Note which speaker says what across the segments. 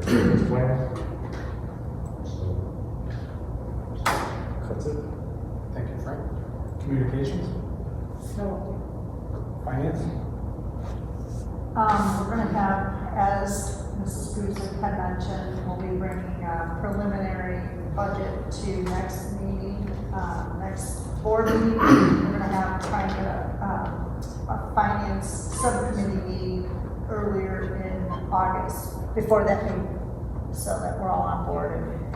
Speaker 1: this plan. So,
Speaker 2: That's it. Thank you, Frank. Communications,
Speaker 3: So,
Speaker 2: finance?
Speaker 3: um, we're gonna have, as Mrs. Guzik had mentioned, we'll be bringing a preliminary budget to next meeting, uh, next board meeting. We're gonna have, try to, get a, um, a finance subcommittee meeting earlier in August, before that meeting, so that we're all on board. and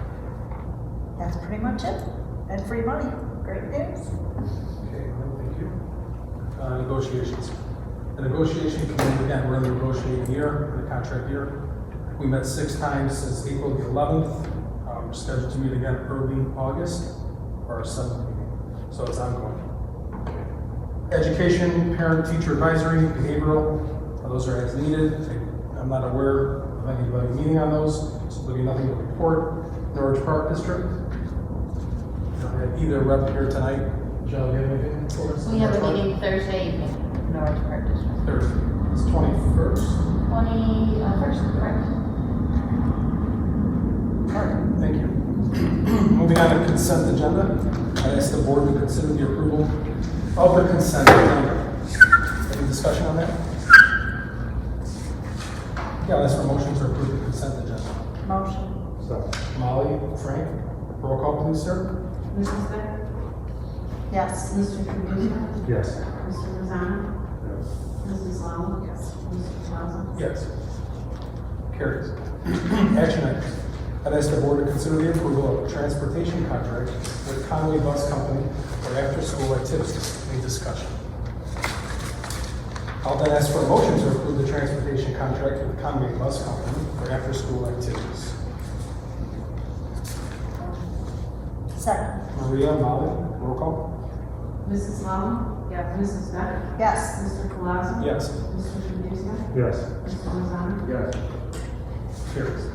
Speaker 3: That's pretty much it, and free money, great news.
Speaker 2: Okay, well, thank you. Uh, negotiations. The negotiation committee, again, we're in the negotiating year, the contract year. We met six times since April the eleventh. Um, we're scheduled to meet again early August for our seventh meeting, so it's ongoing. Education, parent, teacher advisory, behavioral, uh, those are as needed. I'm not aware of anybody meeting on those, so there'll be nothing to report. Norwich Park District. Don't have either rep here tonight. Joe, you have anything for us?
Speaker 4: We have a meeting Thursday evening, Norwich Park District.
Speaker 2: Thursday, it's twenty-first.
Speaker 4: Twenty, uh, first, correct?
Speaker 2: Alright, thank you. Moving on to consent agenda, I ask the board to consider the approval of the consent agenda. Any discussion on that? Yeah, that's for motions to approve the consent agenda.
Speaker 3: Motion.
Speaker 1: so,
Speaker 2: Molly, Frank, roll call please, sir.
Speaker 5: Mrs. Beck?
Speaker 3: Yes.
Speaker 5: Mr. Kaminga?
Speaker 1: yes.
Speaker 5: Mr. Lozano?
Speaker 1: Yes.
Speaker 5: Mrs. Lala? Yes. Mr. Plaza?
Speaker 2: Yes. Carries. Action items, I ask the board to consider the approval of transportation contract with Conway Bus Company for after-school activities. Any discussion? I'll then ask for a motion to approve the transportation contract with Conway Bus Company for after-school activities.
Speaker 3: Second.
Speaker 2: Maria, Molly, roll call?
Speaker 5: Mrs. Lala? Yes. Mrs. Beck?
Speaker 3: Yes.
Speaker 5: Mr. Plaza?
Speaker 2: Yes.
Speaker 5: Mr. Kaminga?
Speaker 1: Yes.
Speaker 5: Mr. Lozano?
Speaker 1: Yes.
Speaker 2: Carries.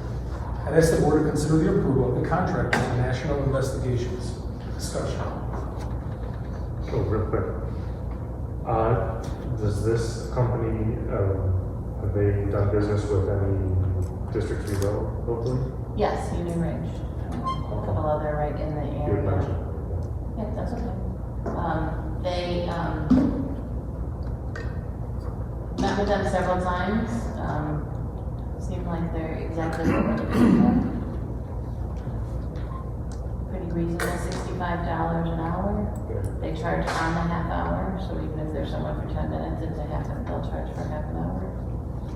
Speaker 2: I'd ask the board to consider the approval of the contract with National Investigations. Discussion.
Speaker 1: So real quick, uh, does this company, um, have they done business with any districts we know locally?
Speaker 4: Yes, Union Ridge. A couple other right in the
Speaker 1: You would
Speaker 4: area.
Speaker 1: mention.
Speaker 4: Yeah, that's okay. Um, they, um, met with them several times, um, seem like they're exactly what we're looking for. Pretty reasonable, sixty-five dollars an hour.
Speaker 1: Yeah.
Speaker 4: They charge on the half hour, so even if there's someone for ten minutes, it's a half, they'll charge for half an hour.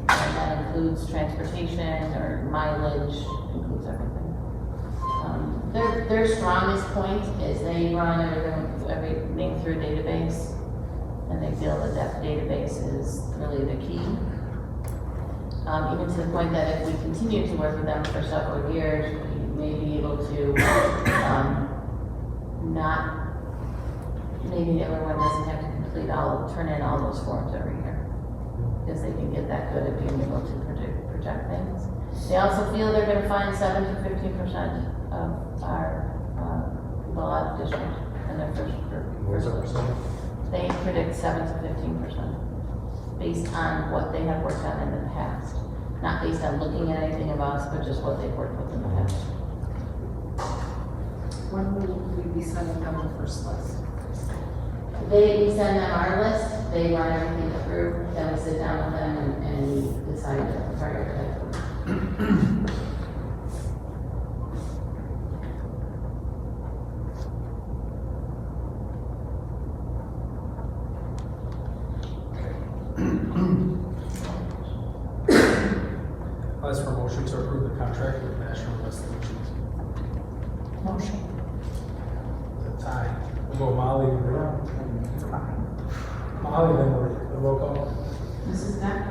Speaker 4: And that includes transportation or mileage, includes everything. Um, Their, their strongest point is they run everything- everything through a database, and they feel that that database is really the key. Um, even to the point that if we continue to work with them for several years, we may be able to, um, not, maybe everyone doesn't have to complete all, turn in all those forms every year, because they can get that good at being able to predict, project things. They also feel they're gonna find seven to fifteen percent of our, uh, people out of district in their first group.
Speaker 1: Where's that percent?
Speaker 4: They predict seven to fifteen percent based on what they have worked on in the past, not based on looking at anything of us, but just what they've worked with in the past.
Speaker 5: When will we be sending them the first list?
Speaker 4: They, we send them our list, they run everything through, then we sit down with them and, and we decide to prioritize.
Speaker 2: I'll ask for a motion to approve the contract with National Investigations.
Speaker 3: Motion.
Speaker 2: That's aye. We'll go Molly and Maria. Molly and Maria, the roll call.
Speaker 5: Mrs. Beck?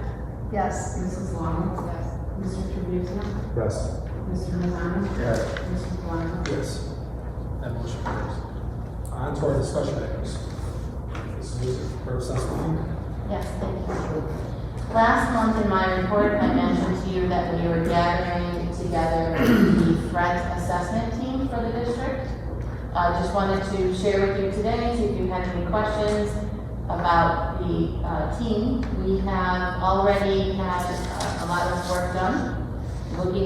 Speaker 3: Yes.
Speaker 5: Mrs. Lala? Yes. Mr. Kaminga?
Speaker 1: Yes.
Speaker 5: Mr. Lozano?
Speaker 1: Yes.
Speaker 5: Mr. Plaza?
Speaker 2: Yes. That motion carries. On to our discussion items. This is Representative
Speaker 4: Yes, thank you. Last month in my report, I mentioned to you that we were gathering together the threat assessment team for the district. I just wanted to share with you today, see if you had any questions about the uh, team. We have already had uh, a lot of work done, looking